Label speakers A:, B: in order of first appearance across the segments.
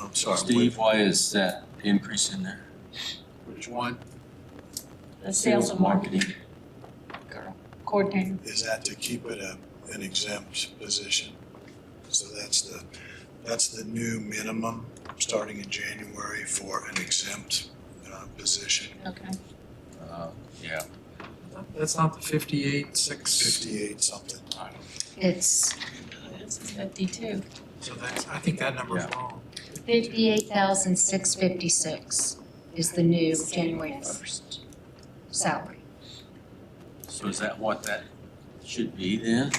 A: I'm sorry.
B: Steve, why is that increase in there?
A: Which one?
C: The sales and marketing coordinator.
A: Is that to keep it a, an exempt position? So that's the, that's the new minimum, starting in January for an exempt, uh, position.
C: Okay.
B: Uh, Yeah,
D: That's not the fifty-eight, six,
A: Fifty-eight something.
E: It's
C: It's fifty-two.
D: so that's, I think that number's
B: Yeah.
D: wrong.
E: fifty-eight thousand six fifty-six is the new January first salary.
B: so is that what that should be then?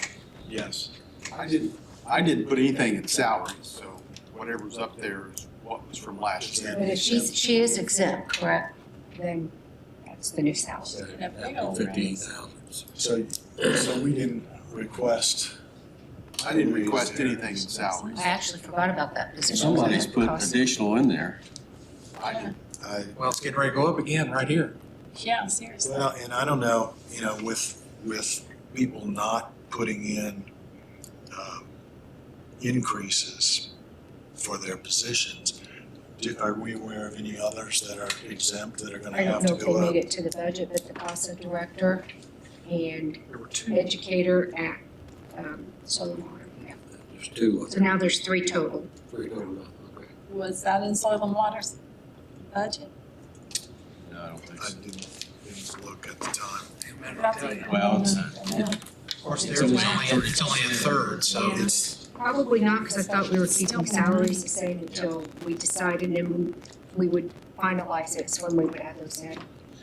A: Yes.
F: I didn't, I didn't put anything in salaries, so whatever's up there is what was from last year.
E: But if she's, she is exempt, correct? Then that's the new salary.
B: Fifteen thousand.
A: So, so we didn't request.
F: I didn't request anything in salaries.
E: I actually forgot about that position.
B: Somebody's put additional in there.
F: I didn't.
A: I,
D: Well, it's getting ready to go up again right here.
C: Yeah, seriously.
A: well, and I don't know, you know, with, with people not putting in, um, increases for their positions, do, are we aware of any others that are exempt that are gonna
E: I don't
A: have
E: know
A: to
E: if they
A: go up?
E: made it to the budget, but the CASA director and
D: There were two.
E: educator at, um, Solomar. yeah.
G: There's two,
E: So now there's three total.
G: three total, okay.
C: Was that in soil and water's budget?
B: No, I don't think
A: I
B: so.
A: didn't, didn't look at the time.
B: Well, it's,
D: Of course, theirs was only, it's only a third, so
C: Yeah.
D: it's,
E: Probably not, because I thought we were keeping salaries the same until we decided, and then we would finalize it, so when we would add those in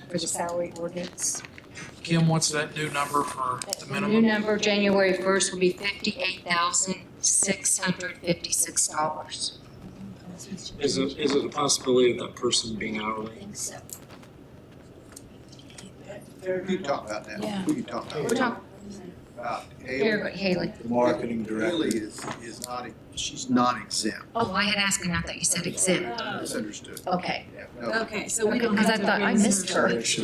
E: for the salary ordinance.
D: Kim, what's that new number for the
E: The new
D: minimum?
E: number, January first, will be fifty-eight thousand, six hundred fifty-six dollars.
H: Is it, is it a possibility of that person being hourly?
F: We can talk about
C: Yeah.
F: that. We can talk
E: We're
F: about it.
E: talking,
F: about Haley.
E: here, Haley.
A: The marketing
F: Haley
A: director,
F: is, is not, e- she's not exempt.
E: Oh, I had asked, and I thought you said exempt.
F: Misunderstood.
E: Okay.
F: Yeah, no.
E: Oh,
C: Okay, so we don't
E: Because
C: have
E: I
C: to.
E: thought I
C: raise
E: missed
C: her.
E: her. So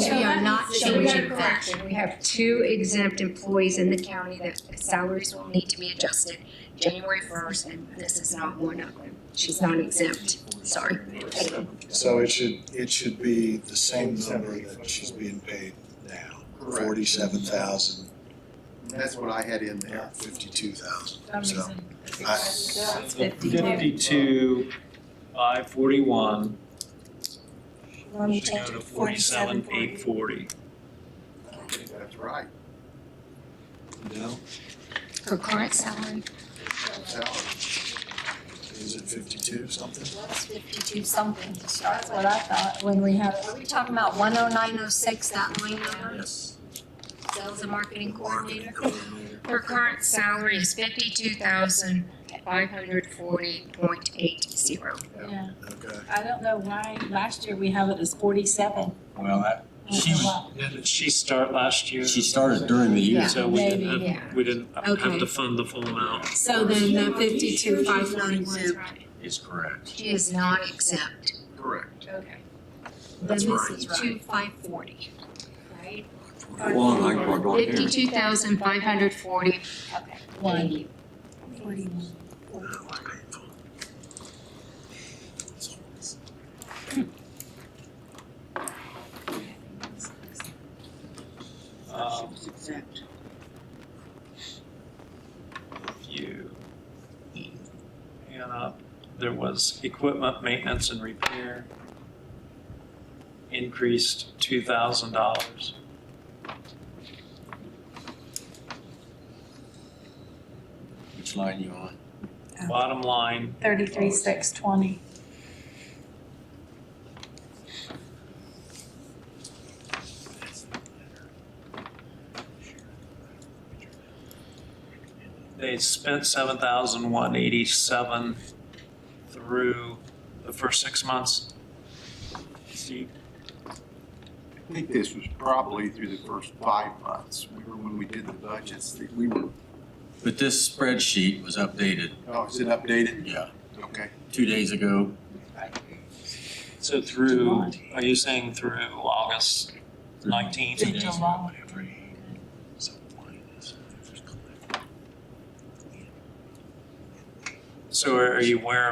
E: we are not changing that. We have two exempt employees in the county that salaries will need to be adjusted January first, and this is not one of them. She's not exempt, sorry.
A: so it should, it should be the same number that she's being paid now,
F: Correct.
A: forty-seven thousand,
F: That's what I had in there.
A: not fifty-two thousand.
C: For some reason.
A: I,
C: That's fifty-two.
F: Uh,
H: Fifty-two, five forty-one,
C: Let me
H: should go
C: change
H: to
C: it, forty-seven,
H: forty-seven, eight
C: forty.
H: forty.
F: That's right.
A: no,
E: Her current salary?
F: Salary.
A: is it fifty-two something?
I: That's fifty-two something to start
C: That's what
I: with.
C: I thought when we had,
I: Are we talking about one oh nine oh six, that line number,
B: yes.
I: sales and marketing coordinator?
E: Her current salary is fifty-two thousand, five hundred forty point eight zero.
C: yeah,
A: Okay.
C: I don't know why last year we have it as forty-seven.
B: Well, that, she was,
D: Yeah,
H: Did she start last year?
B: she started during the year.
H: So we didn't
C: Maybe,
E: yeah.
H: have, we didn't
I: Okay.
H: have to fund the full amount.
C: So then that fifty-two, five
E: is
C: ninety-one.
E: right.
B: Is correct.
E: She is not exempt.
F: Correct.
E: Okay.
A: That's
I: Then
A: right.
I: this is two five forty, right?
B: One, I can go here.
E: Fifty-two thousand, five hundred forty.
I: Okay.
C: One.
H: Um, You. And, uh, there was equipment maintenance and repair increased two thousand dollars.
B: Which line you on?
H: Bottom line,
C: Thirty-three, six twenty.
H: They spent seven thousand one eighty-seven through the first six months. See,
F: I think this was probably through the first five months. We were, when we did the budgets, that we were,
B: But this spreadsheet was updated,
F: oh, is it updated?
B: yeah,
F: Okay.
B: two days ago.
H: So through, are you saying through August nineteenth?
B: Two days ago.
H: So are you aware